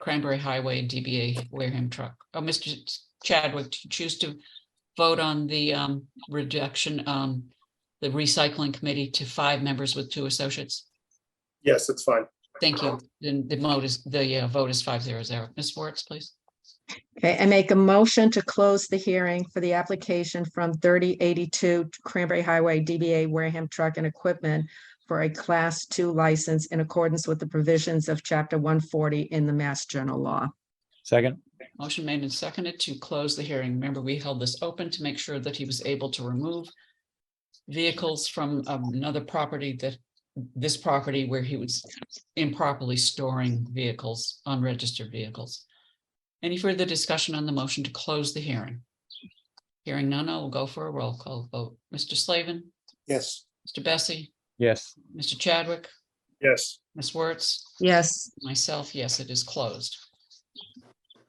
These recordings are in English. Cranberry Highway DBA Wareham Truck. Oh, Mr. Chadwick, do you choose to vote on the um, rejection, um, the recycling committee to five members with two associates? Yes, it's fine. Thank you. Then the vote is, the uh, vote is five zero zero. Ms. Wertz, please. Okay, I make a motion to close the hearing for the application from thirty eighty-two Cranberry Highway DBA Wareham Truck and Equipment for a Class Two license in accordance with the provisions of Chapter one forty in the Mass General Law. Second, Motion made and seconded to close the hearing. Remember, we held this open to make sure that he was able to remove vehicles from um, another property that, this property where he was improperly storing vehicles, unregistered vehicles. Any further discussion on the motion to close the hearing? Hearing none, I will go for a roll call vote. Mr. Slavin, Yes. Mr. Bessie, yes, Mr. Chadwick, Yes, Ms. Wertz. Yes, Myself, yes, it is closed.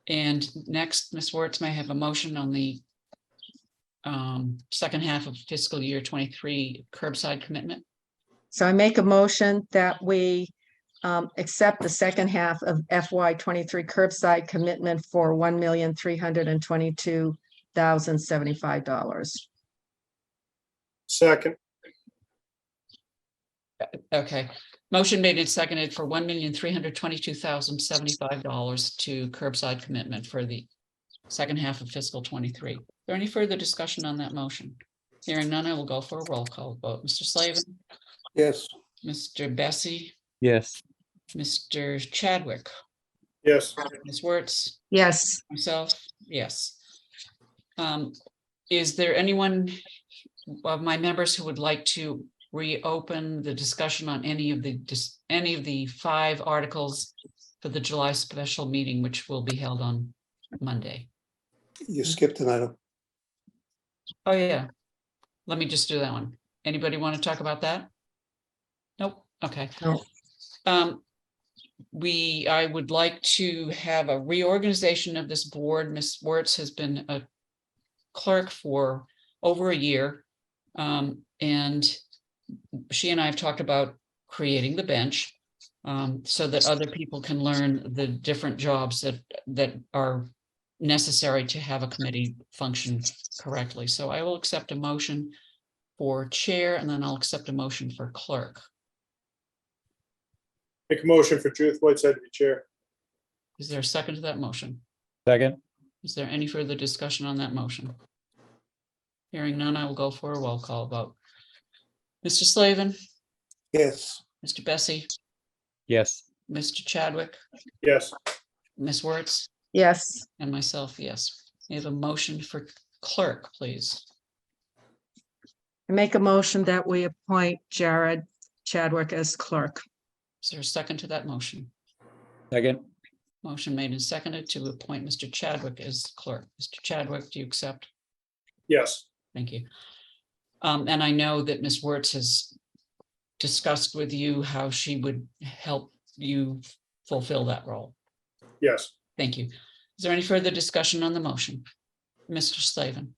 And next, Ms. Wertz may I have a motion on the um, second half of fiscal year twenty-three curbside commitment. so I make a motion that we um, accept the second half of FY twenty-three curbside commitment for one million, three hundred and twenty-two thousand, seventy-five dollars. second, Okay, motion made and seconded for one million, three hundred twenty-two thousand, seventy-five dollars to curbside commitment for the second half of fiscal twenty-three. Is there any further discussion on that motion? Hearing none, I will go for a roll call vote. Mr. Slavin, yes, Mr. Bessie, yes, Mr. Chadwick, yes, Ms. Wertz. Yes. Myself, yes. Um, is there anyone of my members who would like to reopen the discussion on any of the, dis- any of the five articles for the July special meeting, which will be held on Monday? you skipped an item. Oh, yeah. Let me just do that one. Anybody want to talk about that? Nope, okay. No. Um, we, I would like to have a reorganization of this board. Ms. Wertz has been a clerk for over a year. Um, and she and I have talked about creating the bench um, so that other people can learn the different jobs that, that are necessary to have a committee function correctly. So I will accept a motion for chair and then I'll accept a motion for clerk. make a motion for Judith Whiteside to be chair. Is there a second to that motion? second, Is there any further discussion on that motion? Hearing none, I will go for a roll call vote. Mr. Slavin, Yes, Mr. Bessie, yes, Mr. Chadwick, Yes, Ms. Wertz, Yes, and myself, yes. We have a motion for clerk, please. I make a motion that we appoint Jared Chadwick as clerk. Is there a second to that motion? second, Motion made and seconded to appoint Mr. Chadwick as clerk. Mr. Chadwick, do you accept? yes, Thank you. Um, and I know that Ms. Wertz has discussed with you how she would help you fulfill that role. yes, Thank you. Is there any further discussion on the motion? Mr. Slavin,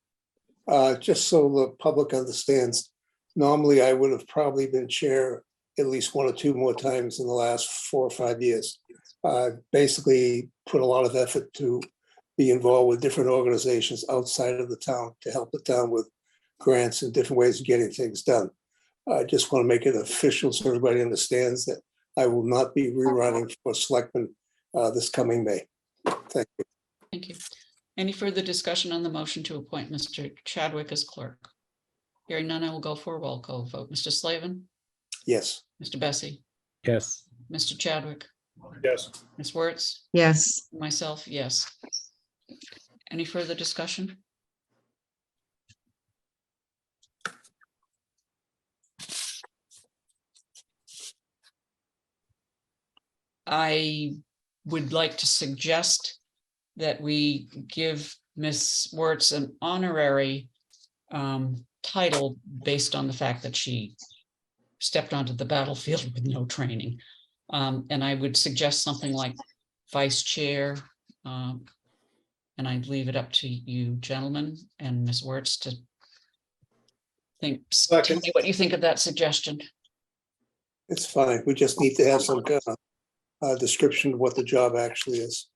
uh, just so the public understands, normally I would have probably been chair at least one or two more times in the last four or five years. I basically put a lot of effort to be involved with different organizations outside of the town to help the town with grants and different ways of getting things done. I just want to make it official so everybody understands that I will not be rerunning for selectman uh, this coming May. Thank you. thank you. Any further discussion on the motion to appoint Mr. Chadwick as clerk? Hearing none, I will go for a roll call vote. Mr. Slavin, Yes. Mr. Bessie, yes, Mr. Chadwick, yes, Ms. Wertz? Yes, Myself, yes. Any further discussion? I would like to suggest that we give Ms. Wertz an honorary um, title based on the fact that she stepped onto the battlefield with no training. Um, And I would suggest something like vice chair. um, And I leave it up to you gentlemen and Ms. Wertz to think, s- tell Second. me what you think of that suggestion. It's fine. We just need to have some kind of uh, description of what the job actually is.